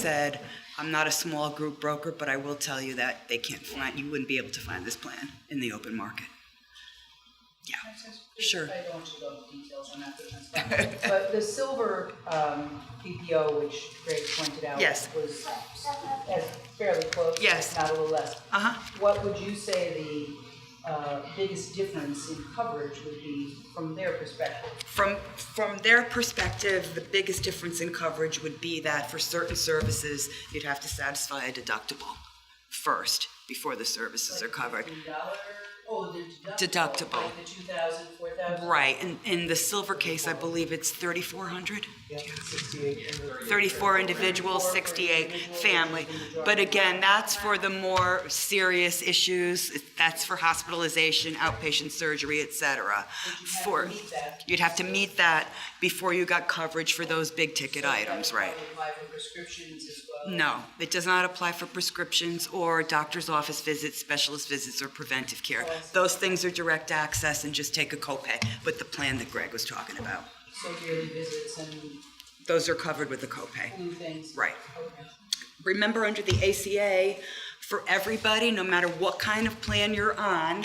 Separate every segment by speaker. Speaker 1: said, I'm not a small group broker, but I will tell you that they can't find, you wouldn't be able to find this plan in the open market. Yeah, sure.
Speaker 2: I don't want you to go into details on that business, but- but the silver um, BPO, which Greg pointed out,
Speaker 1: Yes.
Speaker 2: was as fairly close,
Speaker 1: Yes.
Speaker 2: if not a little less.
Speaker 1: Uh-huh.
Speaker 2: What would you say the uh, biggest difference in coverage would be from their perspective?
Speaker 1: From, from their perspective, the biggest difference in coverage would be that for certain services, you'd have to satisfy a deductible first before the services are covered.
Speaker 2: Like the dollar- oh, the deductible.
Speaker 1: Deductible.
Speaker 2: Like the 2,000, 4,000?
Speaker 1: Right, and in the silver case, I believe it's 3,400?
Speaker 2: Yeah, 6,800.
Speaker 1: 34 individuals, 68 family. But again, that's for the more serious issues. That's for hospitalization, outpatient surgery, et cetera. For,
Speaker 2: meet that.
Speaker 1: you'd have to meet that before you got coverage for those big-ticket items, right?
Speaker 2: Apply for prescriptions as well.
Speaker 1: No, it does not apply for prescriptions or doctor's office visits, specialist visits, or preventive care. Those things are direct access and just take a copay, but the plan that Greg was talking about,
Speaker 2: So yearly visits and
Speaker 1: those are covered with a copay.
Speaker 2: flu things.
Speaker 1: Right.
Speaker 2: Okay.
Speaker 1: remember under the ACA, for everybody, no matter what kind of plan you're on,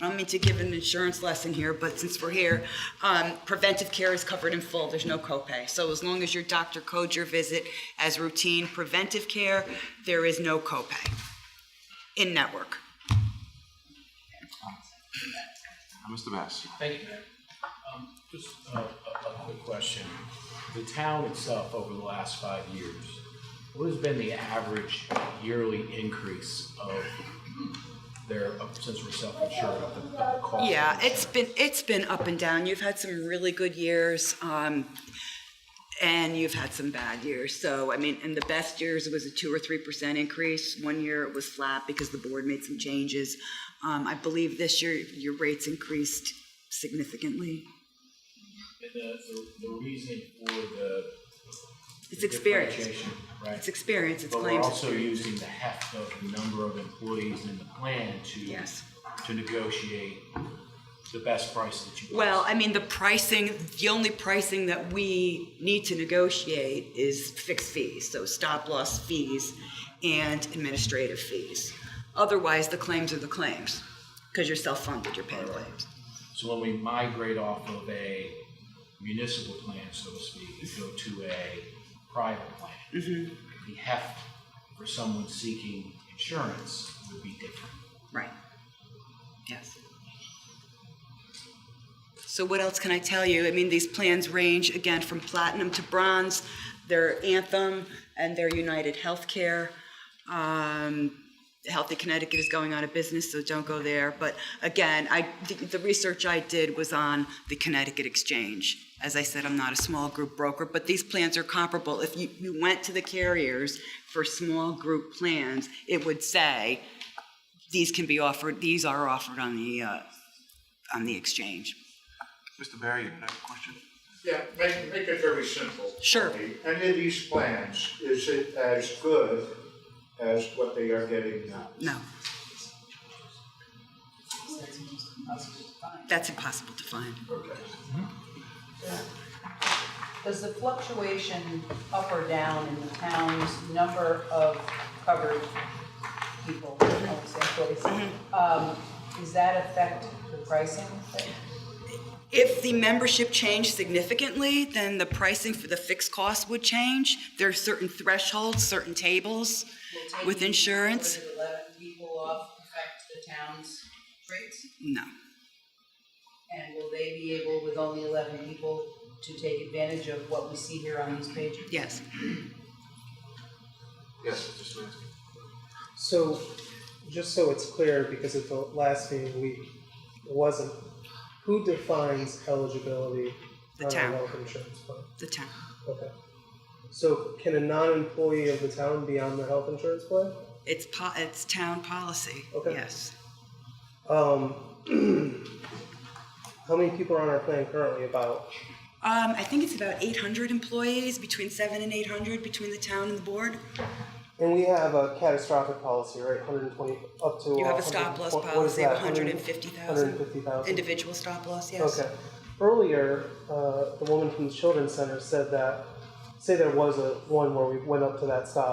Speaker 1: I don't mean to give an insurance lesson here, but since we're here, um, preventive care is covered in full. There's no copay. So as long as your doctor codes your visit as routine preventive care, there is no copay in network.
Speaker 3: Mr. Bass.
Speaker 4: Thank you, Mayor. Um, Just a, a a quick question. The town itself, over the last five years, what has been the average yearly increase of their, of- since we're self-insured, of the, of the cost? of
Speaker 1: Yeah, it's
Speaker 4: insurance?
Speaker 1: been, it's been up and down. You've had some really good years, um, and you've had some bad years. So, I mean, in the best years, it was a two or three percent increase. One year it was flat because the board made some changes. Um, I believe this year, your rates increased significantly.
Speaker 4: And the, the- the reason for the.
Speaker 1: It's
Speaker 4: the
Speaker 1: experience.
Speaker 4: differentiation, Right.
Speaker 1: It's experience, it's
Speaker 4: But we're
Speaker 1: claims.
Speaker 4: also using the heft of the number of employees in the plan to.
Speaker 1: Yes.
Speaker 4: To negotiate the best price that you. guys-
Speaker 1: Well, I mean, the pricing, the only pricing that we need to negotiate is fixed fees, so stop loss fees and administrative fees. Otherwise, the claims are the claims, because you're self-funded, you're paying claims.
Speaker 4: So when we migrate off of a municipal plan, so to speak, and go to a private plan, the heft for someone seeking insurance would be different.
Speaker 1: Right. Yes. So what else can I tell you? I mean, these plans range again from platinum to bronze. They're Anthem and they're United Healthcare. Um, Healthy Connecticut is going out of business, so don't go there. But again, I the, the research I did was on the Connecticut Exchange. As I said, I'm not a small group broker, but these plans are comparable. If you, you went to the carriers for small group plans, it would say these can be offered, these are offered on the, uh, on the exchange.
Speaker 3: Mr. Barry, you have a question?
Speaker 5: Yeah, make, make it very simple.
Speaker 1: Sure.
Speaker 5: Okay, Any of these plans, is it as good as what they are getting now?
Speaker 1: No,
Speaker 2: That's almost impossible to find.
Speaker 1: that's impossible to find.
Speaker 5: Okay.
Speaker 2: Does the fluctuation up or down in the town's number of covered people, I would say employees,
Speaker 1: Mm-hmm.
Speaker 2: um, does that affect the pricing?
Speaker 1: If the membership changed significantly, then the pricing for the fixed cost would change. There are certain thresholds, certain tables with insurance.
Speaker 2: Would Eleven people off affect the town's rates?
Speaker 1: No,
Speaker 2: And will they be able, with only eleven people, to take advantage of what we see here on these pages?
Speaker 1: yes.
Speaker 3: Yes, Mr. Smith.
Speaker 6: So, just so it's clear, because at the last meeting we wasn't, who defines eligibility
Speaker 1: The
Speaker 6: on
Speaker 1: town.
Speaker 6: a health insurance plan?
Speaker 1: The town.
Speaker 6: Okay. So, can a non-employee of the town be on the health insurance plan?
Speaker 1: It's po, it's town policy,
Speaker 6: Okay.
Speaker 1: yes.
Speaker 6: Um, how many people are on our plan currently? About
Speaker 1: Um, I think it's about eight hundred employees, between seven and eight hundred, between the town and the board.
Speaker 6: And we have a catastrophic policy, right? 120 up to.
Speaker 1: You have a
Speaker 6: 100
Speaker 1: stop loss
Speaker 6: what- what is
Speaker 1: policy of
Speaker 6: that?
Speaker 1: 150,000.
Speaker 6: 150,000.
Speaker 1: Individual stop loss, yes.
Speaker 6: Okay. Earlier, uh, the woman from the children's center said that, say there was a one where we went up to that stop